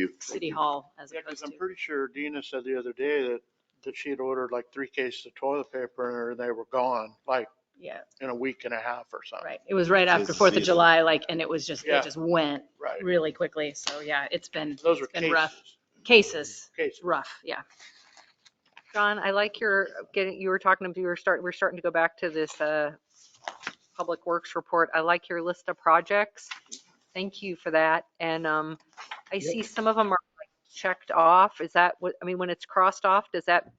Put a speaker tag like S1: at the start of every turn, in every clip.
S1: you.
S2: City Hall as
S3: Yeah, because
S2: opposed
S3: I'm
S2: to.
S3: pretty sure Dina said the other day that, that she had ordered like three cases of toilet paper and they were gone, like
S2: Yeah,
S3: in a week and a half or something.
S2: right. It was right after
S1: It's
S2: Fourth of
S1: seasonal.
S2: July, like, and it was just, they
S3: Yeah.
S2: just went
S3: Right.
S2: really quickly. So yeah, it's been,
S3: Those are
S2: It's been rough. cases,
S3: cases, cases.
S2: rough, yeah.
S4: John, I like your getting, you were talking, to- you were starting, we're starting to go back to this uh, Public Works report. I like your list of projects. Thank you for that. And um, I see some of them are like, checked off. Is that what, I mean, when it's crossed off, does that,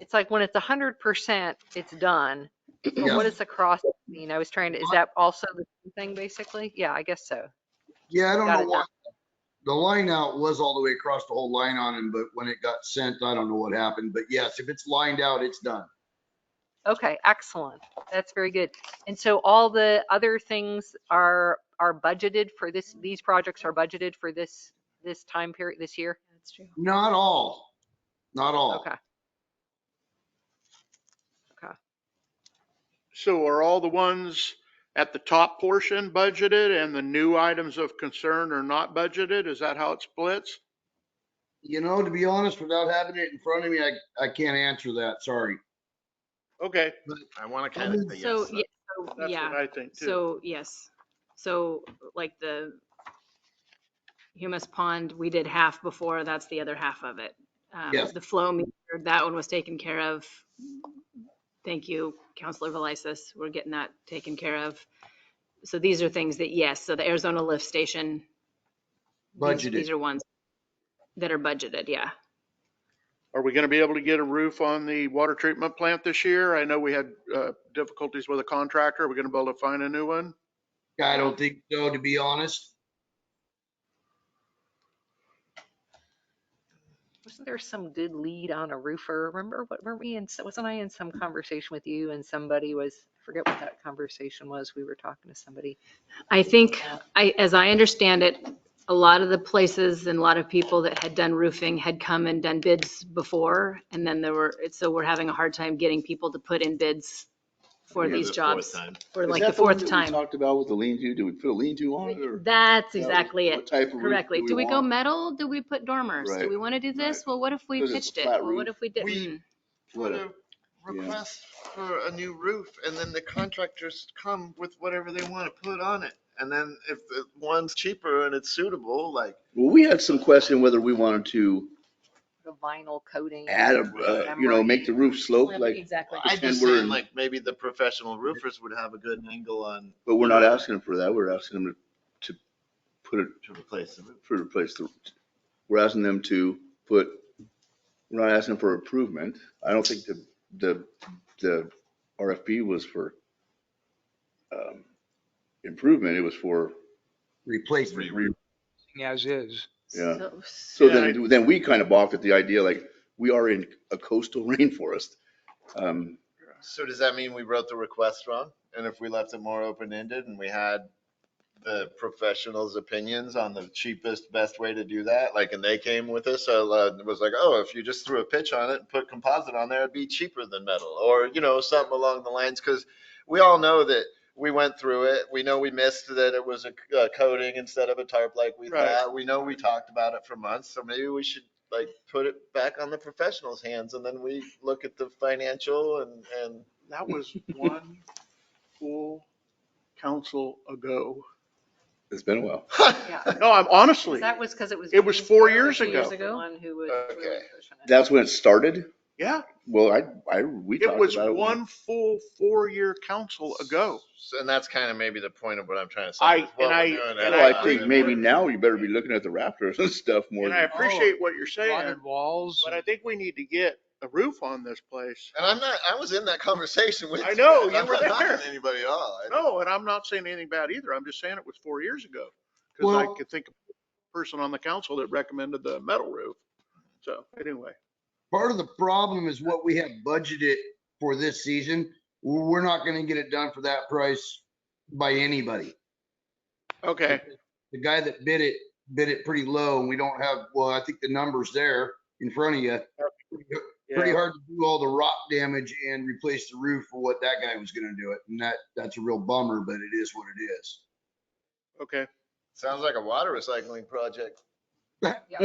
S4: it's like when it's 100%, it's done. But
S5: Yeah.
S4: what does the cross mean? I was trying to, is that also the same thing basically? Yeah, I guess so.
S5: Yeah, I don't
S4: Got
S5: know
S4: it
S5: why. The line out was all the way across the whole line on him, but when it got sent, I don't know what happened. But yes, if it's lined out, it's done.
S4: Okay, excellent. That's very good. And so all the other things are, are budgeted for this, these projects are budgeted for this, this time period, this year?
S2: That's true.
S5: Not all, not all.
S4: Okay.
S3: So are all the ones at the top portion budgeted and the new items of concern are not budgeted? Is that how it splits?
S5: You know, to be honest, without having it in front of me, I, I can't answer that. Sorry.
S3: Okay,
S1: I want to kind of say
S2: So,
S1: yes.
S2: yeah, so,
S3: that's
S2: yeah.
S3: what I think too.
S2: So, yes, so like the humus pond, we did half before, that's the other half of it. Um,
S5: Yes.
S2: The flow meter, that one was taken care of. Thank you, Counselor Velisis, we're getting that taken care of. So these are things that, yes, so the Arizona lift station. these-
S5: Budgeted.
S2: These are ones that are budgeted, yeah.
S3: Are we going to be able to get a roof on the water treatment plant this year? I know we had uh, difficulties with a contractor. Are we going to be able to find a new one?
S5: I don't think so, to be honest.
S4: Wasn't there some good lead on a roofer? Remember, what, were we in, so- wasn't I in some conversation with you and somebody was, I forget what that conversation was. We were talking to somebody.
S2: I think, I, as I understand it, a lot of the places and a lot of people that had done roofing had come and done bids before. And then there were, so we're having a hard time getting people to put in bids for
S1: Yeah,
S2: these
S1: the fourth
S2: jobs.
S1: time.
S2: For
S1: Is
S2: like
S1: that
S2: the
S1: one
S2: fourth
S1: that we
S2: time.
S1: Talked about with the lean-to, do we put a lean-to on it or?
S2: That's exactly
S1: What
S2: it,
S1: type of roof
S2: correctly. Do we go
S1: want?
S2: metal? Do we put dormers? Do
S1: Right,
S2: we want to do this?
S1: right.
S2: Well, what if we
S1: Because it's a
S2: pitched it?
S1: flat
S2: Well, what
S1: roof.
S2: if we hmm. didn't?
S6: put
S1: What-
S6: a request for a new roof and then the contractors come with whatever they want to put on it. And then if the one's cheaper and it's suitable, like
S1: Well, we had some question whether we wanted to
S4: The vinyl coating.
S1: add a, uh, you know, make the roof slope like,
S2: Exactly.
S1: Well,
S6: I
S1: Pretend
S6: just
S1: we're
S6: think
S1: in-
S6: like maybe the professional roofers would have a good angle on
S1: but we're not asking them for that. We're asking them to, to put it,
S6: to replace the roof.
S1: for replace the, we're asking them to put, we're not asking for improvement. I don't think the, the, the RFP was for, um, improvement. It was for,
S5: Replacement.
S7: as is.
S1: yeah.
S2: So-
S1: So
S3: Yeah,
S1: then, then we kind of balked at the idea, like, we are in a coastal rainforest. Um,
S6: So does that mean we wrote the request wrong? And if we left it more open-ended and we had the professionals' opinions on the cheapest, best way to do that, like, and they came with us, so uh, it was like, oh, if you just threw a pitch on it and put composite on there, it'd be cheaper than metal, or, you know, something along the lines, because we all know that we went through it. We know we missed that it was a a coating instead of a tarp like we
S3: Right.
S6: thought. We know we talked about it for months, so maybe we should like put it back on the professionals' hands and then we look at the financial and, and
S3: That was one full council ago.
S1: it's been a while.
S4: Yeah.
S3: No, I'm honestly,
S4: That was because it was.
S3: It was four years
S4: Two
S3: ago.
S4: the One who was really
S6: Okay.
S4: pushing it.
S1: That's when it started.
S3: yeah,
S1: Well, I, I, we
S3: it
S1: talked
S3: was
S1: about it. when-
S3: one full four-year council ago.
S6: So- And that's kind of maybe the point of what I'm trying to say.
S3: I-
S6: is what
S3: and
S6: we're
S3: I-
S6: doing
S3: and
S1: Well,
S6: at the
S1: I
S3: I-
S1: think
S6: time.
S1: maybe now you better be looking at the Raptors and stuff more.
S3: And I
S1: than-
S3: appreciate what you're saying,
S7: Rotted walls.
S3: but I think we need to get a roof on this place.
S6: And I'm not, I was in that conversation with.
S3: I know,
S6: and
S3: you
S6: I'm
S3: were
S6: not knocking
S3: there.
S6: Anybody at all. I-
S3: No, and I'm not saying anything bad either. I'm just saying it was four years ago. Cause I
S5: Well-
S3: could think of a person on the council that recommended the metal roof. So anyway,
S5: Part of the problem is what we have budgeted for this season. We're not going to get it done for that price by anybody.
S3: okay,
S5: the guy that bid it, bid it pretty low and we don't have, well, I think the number's there in front of you. Pretty
S3: yeah,
S5: hard to do all the rock damage and replace the roof for what that guy was gonna do it. And that, that's a real bummer, but it is what it is.
S3: okay.
S6: Sounds like a water recycling project.